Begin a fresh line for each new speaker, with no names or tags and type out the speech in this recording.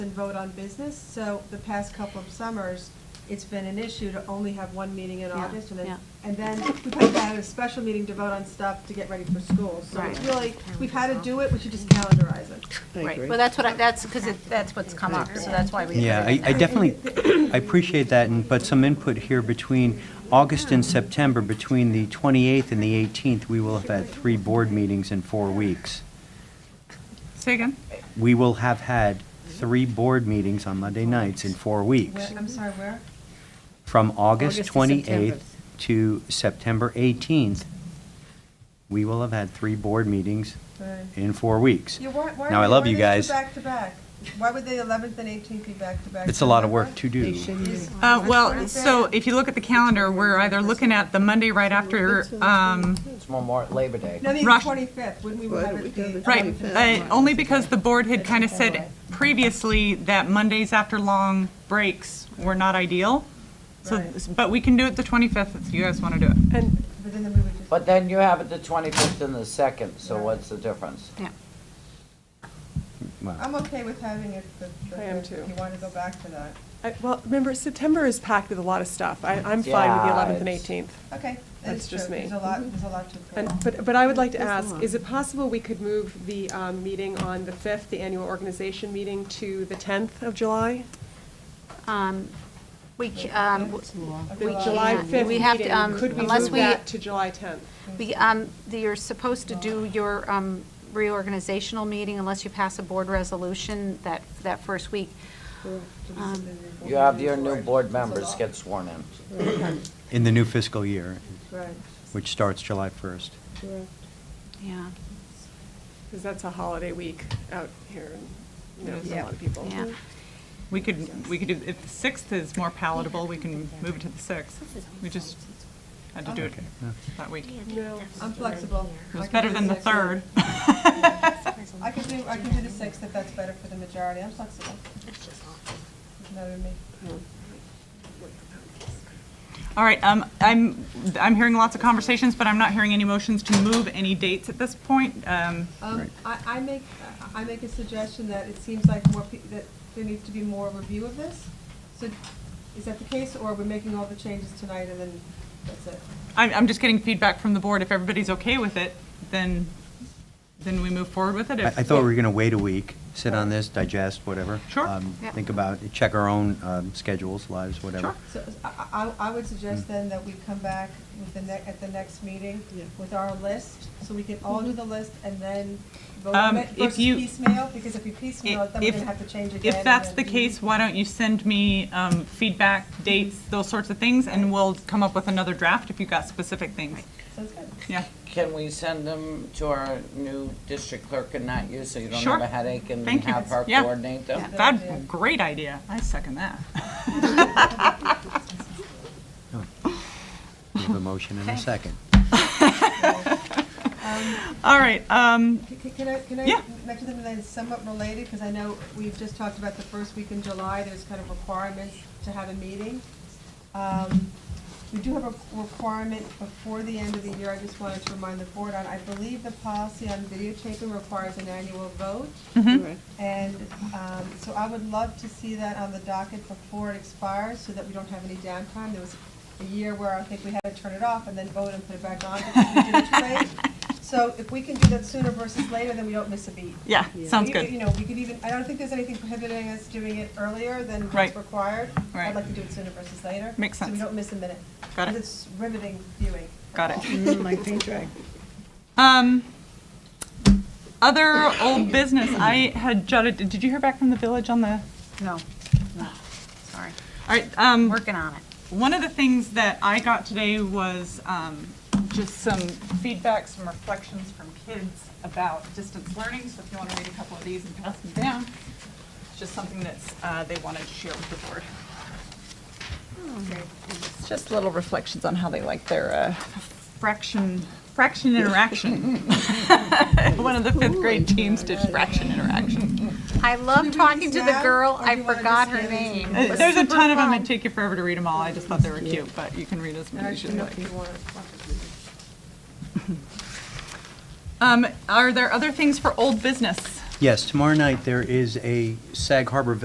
and vote on business, so the past couple of summers, it's been an issue to only have one meeting in
Yeah,
August, and then,
yeah.
and then we had to have a special meeting to vote on stuff to get ready for school. So it's
Right.
really, we've had to do it, we should just calendarize it.
Right, well, that's what I, that's, because that's what's come up, so that's why we. put
Yeah,
it
I
in
I
there.
definitely, I appreciate that, and but some input here between August and September, between the 28th and the 18th, we will have had three board meetings in four weeks.
Say again?
We will have had three board meetings on Monday nights in four
Where,
weeks,
I'm sorry, where?
from August
August to September.
28th to September 18th. We will have had three board meetings
Right.
in four weeks.
Yeah, why, why?
Now, I
are-
love
why
you
are these
guys.
two back-to-back? Why would the 11th and 18th be back-to-back?
It's a lot of work to do.
They shouldn't do it.
Oh,
Uh, well, so if you look at the calendar, we're either looking at the Monday right after, um,
It's Memorial Labor Day.
No, I mean, the
Rush-
25th, wouldn't we
Why
have
don't we
it
go
the?
the
right, uh, only because the board had kind of said previously that Mondays after long breaks were not ideal. So,
Right.
but we can do it the 25th if you guys want to do it.
And. But then we would just.
But then you have it the 25th and the 2nd, so what's the difference?
I'm okay with having it the, the.
I am
if
too.
You wanna go back to that.
I- uh, Well, remember, September is packed with a lot of stuff. I, I'm fine with the
Yeah,
11th and
it's-
18th.
Okay. that
That's
is
just
true.
me.
There's a lot, there's a lot to.
And, but, but I would like to ask, is it possible we could move the um, meeting on the 5th, the annual organization meeting, to the 10th of July?
Um, We, c- um,
The
We
July
can't.
5th
We have to, um,
meeting, could we
unless
move
we-
that to July 10th?
we, um, the- you're supposed to do your um, reorganizational meeting unless you pass a board resolution that, that first week. Um,
You have your new board members get sworn in.
In the new fiscal year,
Right.
which starts July 1st.
Yeah,
Because that's a holiday week out here, and, you know, for a
Yeah.
lot of people.
Mm-hmm. yeah.
We could, we could do, if the 6th is more palatable, we can move it to the 6th. We just had to do it
Okay, yeah.
that week.
No,
Hmm?
I'm flexible.
It
I
was
can
better
do
than the
sixth.
3rd.
I could do, I could do the sixth if that's better for the majority. I'm flexible. Doesn't matter to me.
All right, um, I'm, I'm hearing lots of conversations, but I'm not hearing any motions to move any dates at this point. Um,
Um, I, I make, I make a suggestion that it seems like more, peo- that there needs to be more review of this. So is that the case, or we're making all the changes tonight and then that's it?
I'm, I'm just getting feedback from the board. If everybody's okay with it, then, then we move forward with it.
I,
If-
I thought we were going to wait a week, sit on this, digest, whatever.
Sure.
um,
Yeah.
Think about, it, check our own um, schedules, lives, whatever.
Sure.
So I, I I would suggest then that we come back with the ne, at the next meeting
Yeah.
with our list, so we can all do the list and then vote on
Um,
it
if
versus
you-
piecemeal, because if we piecemeal it, then we're
If-
gonna have to change again.
If
and
that's the
then-
case, why don't you send me um, feedback, dates, those sorts of things, and we'll come up with another draft if you've got specific things.
Sounds good.
Yeah,
Can we send them to our new district clerk and not you, so you don't
Sure.
have a headache and
Thank you.
have her
Yeah.
coordinate them?
that's a great idea. I second that.
We have a motion and a second.
All right, um,
C- c- Can I, can I
Yeah.
mention something that is somewhat related, because I know we've just talked about the first week in July, there's kind of requirements to have a meeting. Um, We do have a requirement before the end of the year, I just wanted to remind the board on, I believe the policy on videotaping requires an annual vote. And um, so I would love to see that on the docket before it expires, so that we don't have any downtime. There was a year where I think we had to turn it off and then vote and put it back on because we did it too late. So if we can do that sooner versus later, then we don't miss a beat.
yeah, sounds
You- You
good.
know, we could even, I don't think there's anything prohibiting us doing it earlier than what's
Right.
required. I'd
Right.
like to do it sooner versus later.
Makes
So we
sense.
don't miss a minute.
Got it.
Because it's riveting viewing.
Got it.
Mm, My paint dry.
Um, other old business, I had jotted, did you hear back from the village on the, all
No, no, sorry.
right, um.
Working on it.
One of the things that I got today was um, just some feedback, some reflections from kids about distance learning. So if you want to read a couple of these and pass them down, it's just something that's, uh, they wanted to share with the board. It's Just little reflections on how they like their uh, fraction, fraction interaction. One of the fifth grade teams did fraction interaction.
I love
we do
talking
these
to the
now,
girl,
or do
I
you wanna
forgot
just
her
do these
name. It was
There's a
super
ton of them,
fun.
it'd take you forever to read them all. I just thought they were cute, but you can read as many as you like. Um, are there other things for old business?
Yes, tomorrow night, there is a Sag Harbor